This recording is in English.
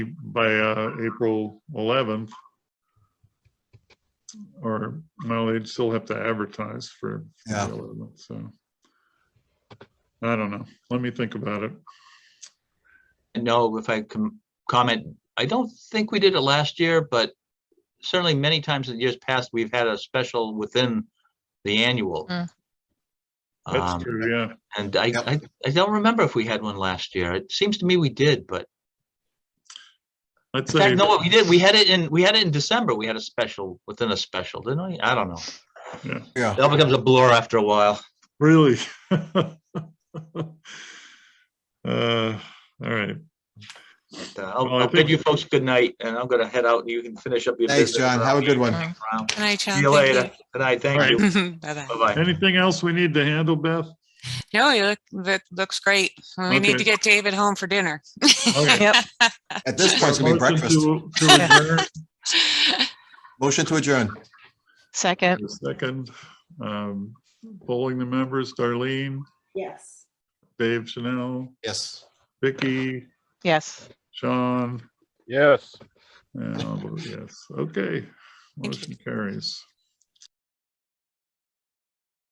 by uh, April 11th. Or, well, they'd still have to advertise for for Yeah. the 11th, so. I don't know. Let me think about it. No, if I can comment, I don't think we did it last year, but certainly many times in years past, we've had a special within the annual. Mm. That's Um, true, yeah. And I, Yep. I, I don't remember if we had one last year. It seems to me we did, but I'd in say, fact, no, what we did, we had it in, we had it in December. We had a special within a special, didn't we? I don't know. Yeah, It all becomes a blur after a while. really. Uh, All right. But, uh, I'll, Well, I I'll bid think- you folks good night and I'm gonna head out and you can finish up your thanks, business. John. Have a good one. All right. Around. Good night, John. See you later. Thank Good night. Thank All you. you. Bye-bye. Bye-bye. Anything else we need to handle, Beth? No, you look, that looks great. We need Okay. to get David home for dinner. Okay. at this point, it's gonna be Motion breakfast. to- to adjourn. Motion to adjourn. Second. The Second, um, polling the members, Darlene, Yes. Dave Chanel, Yes. Vicky, Yes. Sean, Yes. and I'll vote yes, okay. Thank you. Motion carries.